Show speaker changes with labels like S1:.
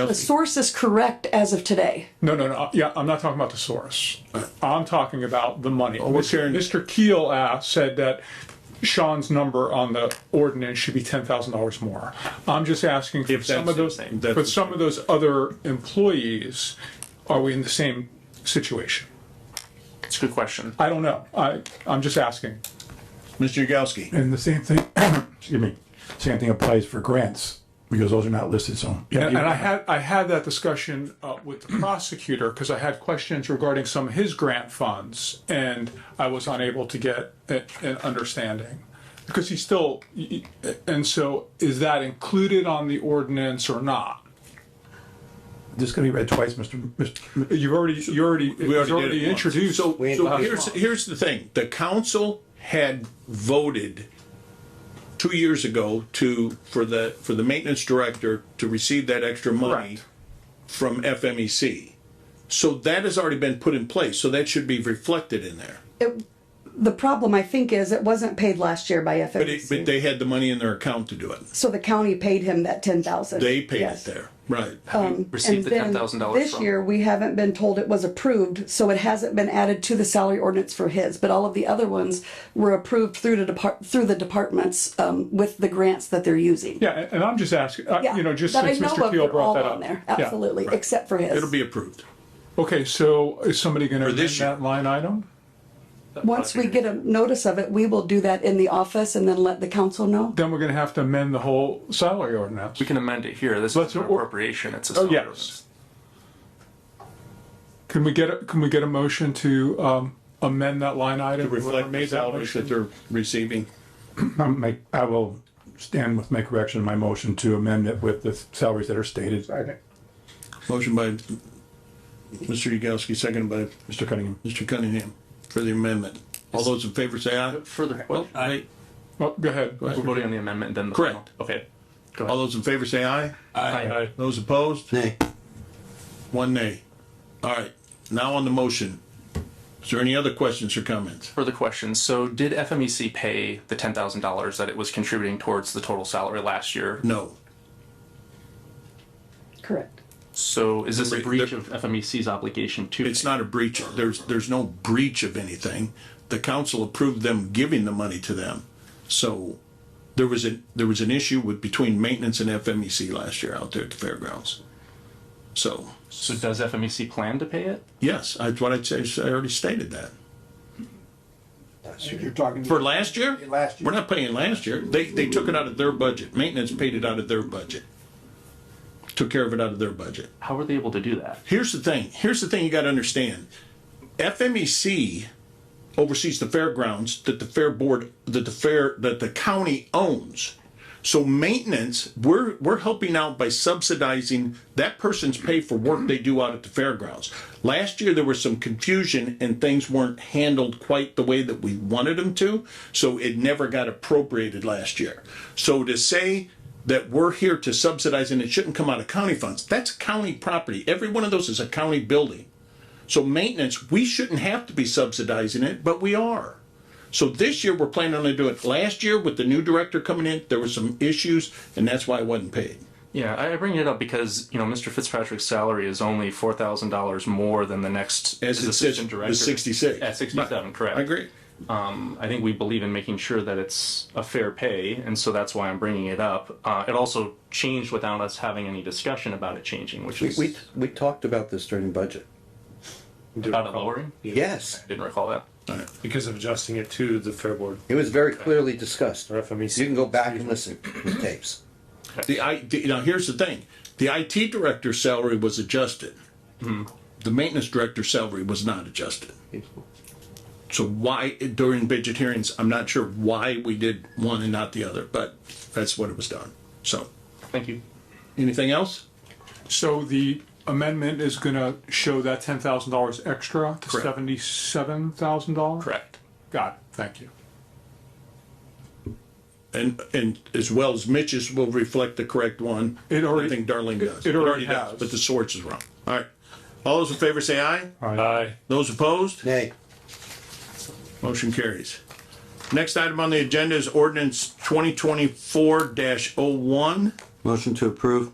S1: The source is correct as of today.
S2: No, no, no. Yeah, I'm not talking about the source. I'm talking about the money.
S3: we're
S2: Mr.
S3: hearing-
S2: Mr. Keel asked, said that Sean's number on the ordinance should be ten thousand dollars more. I'm just asking for
S3: If
S2: some of
S3: that's-
S2: those,
S3: that's-
S2: for some of those other employees, are we in the same situation?
S4: It's a good question.
S2: I don't know. I, I'm just asking.
S3: Mr. Yagowski,
S5: And the same thing, excuse me, same thing applies for grants, because those are not listed, so.
S2: And, and I had, I had that discussion uh, with the prosecutor because I had questions regarding some of his grant funds and I was unable to get a- an understanding. Because he still, y- y- and so is that included on the ordinance or not?
S5: This is gonna be read twice, Mr. Mr.
S2: You've already, you already, it
S3: we
S2: was
S3: already did
S2: already
S3: it once.
S2: introduced.
S3: So, so
S2: last
S3: here's,
S2: month.
S3: here's the thing, the council had voted two years ago to, for the, for the maintenance director to receive that extra money
S2: Correct.
S3: from FMEC. So that has already been put in place, so that should be reflected in there.
S1: The problem, I think, is it wasn't paid last year by
S3: But it, but
S1: FMC.
S3: they had the money in their account to do it.
S1: So the county paid him that ten thousand.
S3: They paid it there, right.
S4: Received the ten thousand dollars
S1: This
S4: from.
S1: year, we haven't been told it was approved, so it hasn't been added to the salary ordinance for his, but all of the other ones were approved through the depart, through the departments, um, with the grants that they're using.
S2: Yeah, and- and I'm just asking, uh,
S1: Yeah,
S2: you know, just
S1: that I
S2: since
S1: know
S2: Mr.
S1: of,
S2: Keel
S1: they're
S2: brought
S1: all
S2: that
S1: on
S2: up.
S1: there,
S2: Yeah.
S1: Absolutely, except for his.
S3: It'll be approved.
S2: Okay, so is somebody going to amend
S3: this
S2: that line item?
S1: Once we get a notice of it, we will do that in the office and then let the council know.
S2: Then we're going to have to amend the whole salary ordinance.
S4: We can amend it here. This
S2: Let's-
S4: is an appropriation. It's a.
S2: Oh,
S4: separate
S2: yes.
S4: ordinance.
S2: Can we get, a- can we get a motion to um, amend that line item? Whoever
S3: Reflect the
S2: made that
S3: salaries
S2: motion?
S3: that they're receiving.
S5: I'll make, I will stand with my correction, in my motion to amend it with the salaries that are stated.
S3: Motion by Mr. Yagowski, seconded by
S5: Mr. Cunningham.
S3: Mr. Cunningham for the amendment. All those in favor say aye.
S4: Further, well,
S3: Aye.
S2: Well, go ahead.
S4: we're voting on the amendment and then the.
S3: Correct.
S4: final. Okay. Go
S3: All
S4: ahead.
S3: those in favor say aye.
S4: Aye.
S3: Those opposed?
S6: Nay.
S3: One nay. All right, now on the motion. Is there any other questions or comments?
S4: Further questions. So did FMEC pay the ten thousand dollars that it was contributing towards the total salary last year?
S3: No.
S1: Correct.
S4: So is this a
S3: There-
S4: breach
S3: there-
S4: of FMEC's obligation to?
S3: It's not a breach. There's, there's no breach of anything. The council approved them giving the money to them. So there was a, there was an issue with, between maintenance and FMEC last year out there at the fairgrounds. So,
S4: So does FMEC plan to pay it?
S3: yes, that's what I'd say. I already stated that.
S6: You're talking.
S3: For last year?
S6: Last year.
S3: We're not paying last year. They, they took it out of their budget. Maintenance paid it out of their budget. Took care of it out of their budget.
S4: How were they able to do that?
S3: Here's the thing. Here's the thing you got to understand. E FMEC oversees the fairgrounds that the fair board, that the fair, that the county owns. So maintenance, we're, we're helping out by subsidizing that person's pay for work they do out at the fairgrounds. Last year, there was some confusion and things weren't handled quite the way that we wanted them to, so it never got appropriated last year. So to say that we're here to subsidize and it shouldn't come out of county funds, that's county property. Every one of those is a county building. So maintenance, we shouldn't have to be subsidizing it, but we are. So this year, we're planning on doing it. Last year, with the new director coming in, there were some issues, and that's why it wasn't paid.
S4: Yeah, I I bring it up because, you know, Mr. Fitzpatrick's salary is only four thousand dollars more than the next
S3: As it
S4: his
S3: sits,
S4: assistant
S3: the
S4: director.
S3: 66.
S4: At sixty-seven, correct.
S3: I agree.
S4: I think we believe in making sure that it's a fair pay, and so that's why I'm bringing it up. Uh, it also changed without us having any discussion about it changing, which
S6: We,
S4: is
S6: we, we talked about this during budget.
S4: about it lowering.
S6: Yes,
S4: Didn't recall that.
S7: Because of adjusting it to the Fair Board
S6: it was very clearly discussed.
S7: or
S6: You
S7: FMEC.
S6: can go back and listen to the tapes.
S3: The I, the- now here's the thing, the IT director's salary was adjusted. The maintenance director's salary was not adjusted. So why, during budget hearings, I'm not sure why we did one and not the other, but that's what it was done. So,
S4: Thank you.
S3: anything else?
S2: So the amendment is going to show that ten thousand dollars extra to
S3: Correct.
S2: seventy-seven thousand dollars?
S4: Correct.
S2: Got it, thank you.
S3: And, and as well as Mitch's will reflect the correct one.
S2: It already-
S3: I think Darlene does.
S2: it already
S3: does,
S2: has.
S3: But the source is wrong. All right. All those in favor say aye.
S7: Aye.
S3: Those opposed?
S6: Nay,
S3: Motion carries. Next item on the agenda is ordinance twenty twenty-four oh one
S6: motion to approve.